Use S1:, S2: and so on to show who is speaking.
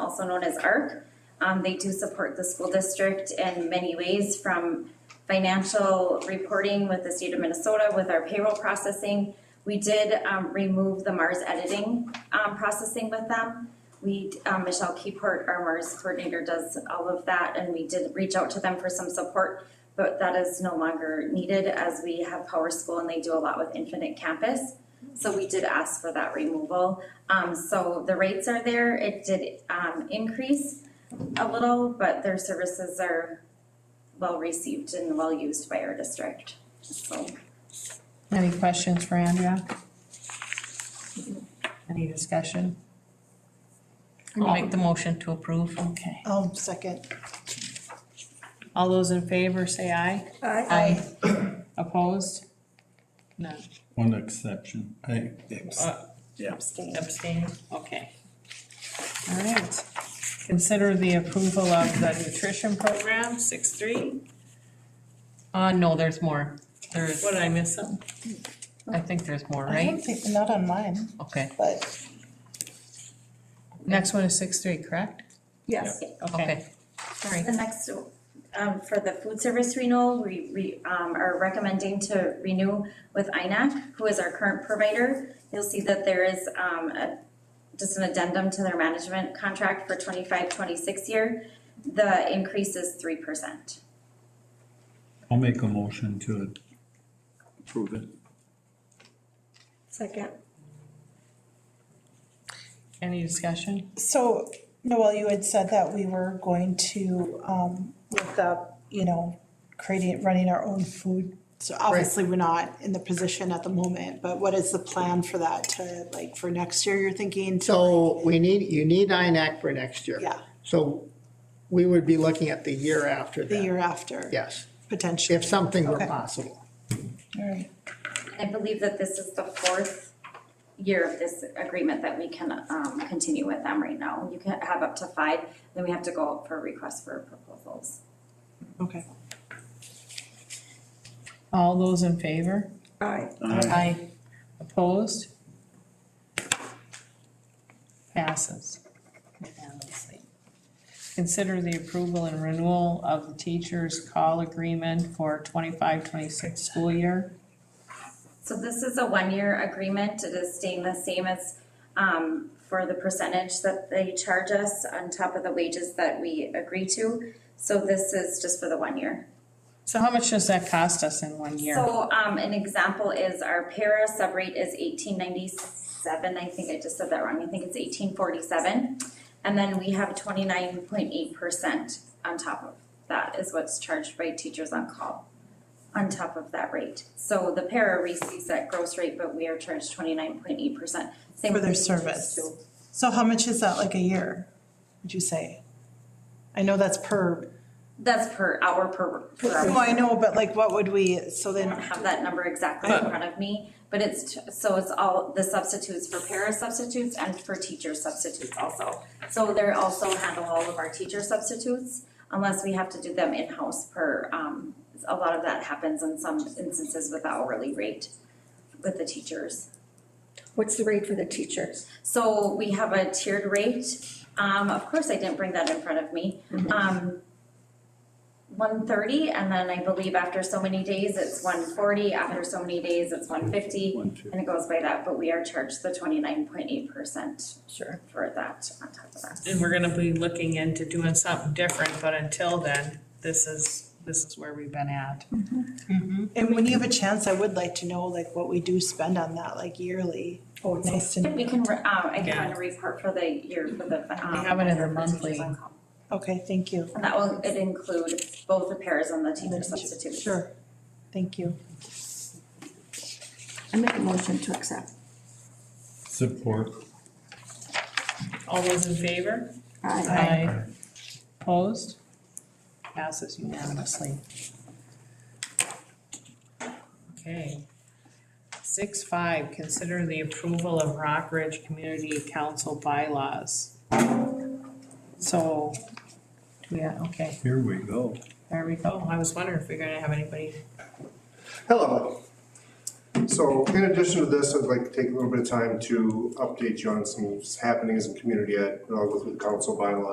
S1: also known as ARC. Um, they do support the school district in many ways from financial reporting with the state of Minnesota, with our payroll processing. We did, um, remove the Mars editing, um, processing with them. We, um, Michelle Keyport, our Mars coordinator, does all of that, and we did reach out to them for some support, but that is no longer needed as we have Power School and they do a lot with Infinite Campus. So we did ask for that removal. Um, so the rates are there. It did, um, increase a little, but their services are well received and well used by our district, so.
S2: Any questions for Andrea? Any discussion?
S3: I'll make the motion to approve.
S2: Okay,
S4: I'll second.
S2: all those in favor say aye.
S4: Aye.
S2: Opposed? None.
S5: One exception, I,
S2: Uh,
S5: yeah.
S4: Abstain.
S2: Abstain, okay. All right. Consider the approval of the nutrition program, six three.
S3: Uh, no, there's more. There's,
S2: What did I miss something?
S3: I think there's more,
S4: I
S3: right?
S4: don't think, not on mine,
S3: Okay,
S4: but
S2: Next one is six three, correct?
S4: yes,
S3: okay.
S2: Sorry.
S1: The next, um, for the food service renewal, we, we, um, are recommending to renew with INAC, who is our current provider. You'll see that there is, um, a, just an addendum to their management contract for 25-26 year. The increase is three percent.
S5: I'll make a motion to approve it.
S6: Second.
S2: Any discussion?
S4: so, Noel, you had said that we were going to, um, look up, you know, creating, running our own food. So obviously, we're not in the position at the moment, but what is the plan for that to, like, for next year, you're thinking to?
S7: So we need, you need INAC for next year.
S4: Yeah,
S7: So we would be looking at the year after
S4: the
S7: that,
S4: year after.
S7: yes,
S4: Potentially.
S7: if something were
S4: Okay.
S7: possible.
S4: All right.
S1: I believe that this is the fourth year of this agreement that we can, um, continue with them right now. You can have up to five, then we have to go out for requests for proposals.
S4: Okay.
S2: All those in favor?
S6: Aye.
S2: Aye. Opposed? Passes. unanimously. Consider the approval and renewal of the teacher's call agreement for 25-26 school year.
S1: So this is a one-year agreement, it is staying the same as, um, for the percentage that they charge us on top of the wages that we agree to. So this is just for the one year.
S2: So how much does that cost us in one year?
S1: So, um, an example is our para sub rate is eighteen ninety-seven, I think I just said that wrong, I think it's eighteen forty-seven. And then we have twenty-nine point eight percent on top of that is what's charged by teachers on call, on top of that rate. So the para receives that gross rate, but we are charged twenty-nine point eight percent.
S4: For their service. So how much is that, like, a year, would you say? I know that's per,
S1: That's per hour, per, per hour.
S4: no, I know, but like, what would we, so
S1: I
S4: then.
S1: don't have that number exactly in front of me, but it's, t- so it's all the substitutes for para substitutes and for teacher substitutes also. So they're also handle all of our teacher substitutes unless we have to do them in-house per, um, a lot of that happens in some instances with hourly rate with the teachers.
S6: What's the rate for the teachers?
S1: So we have a tiered rate. Um, of course, I didn't bring that in front of me.
S2: Mm-hmm.
S1: Um, one thirty, and then I believe after so many days, it's one forty, after so many days, it's one fifty,
S5: One two.
S1: and it goes by that, but we are charged the twenty-nine point eight percent
S6: Sure.
S1: for that on top of that.
S2: And we're gonna be looking into doing something different, but until then, this is, this is where we've been at.
S4: And when you have a chance, I would like to know like what we do spend on that, like yearly. Oh, nice to know.
S1: We can, re- um, I can
S2: Yeah.
S1: run a report for the year for the, um.
S2: We have it in the
S1: for teachers
S2: monthly.
S1: on call.
S4: Okay, thank you.
S1: And that will, it include both the pairs and the teacher
S4: Sure.
S1: substitutes.
S4: Sure, thank you.
S6: I make a motion to accept.
S5: Support.
S2: All those in favor?
S6: Aye.
S2: Aye. Opposed? Passes unanimously. Okay. Six five, consider the approval of Rock Ridge Community Council bylaws. So, yeah, okay,
S5: Here we go.
S2: there we go. I was wondering if we're gonna have anybody.
S8: Hello. So in addition to this, I'd like to take a little bit of time to update you on some happenings in community ed, and I'll go through the council bylaw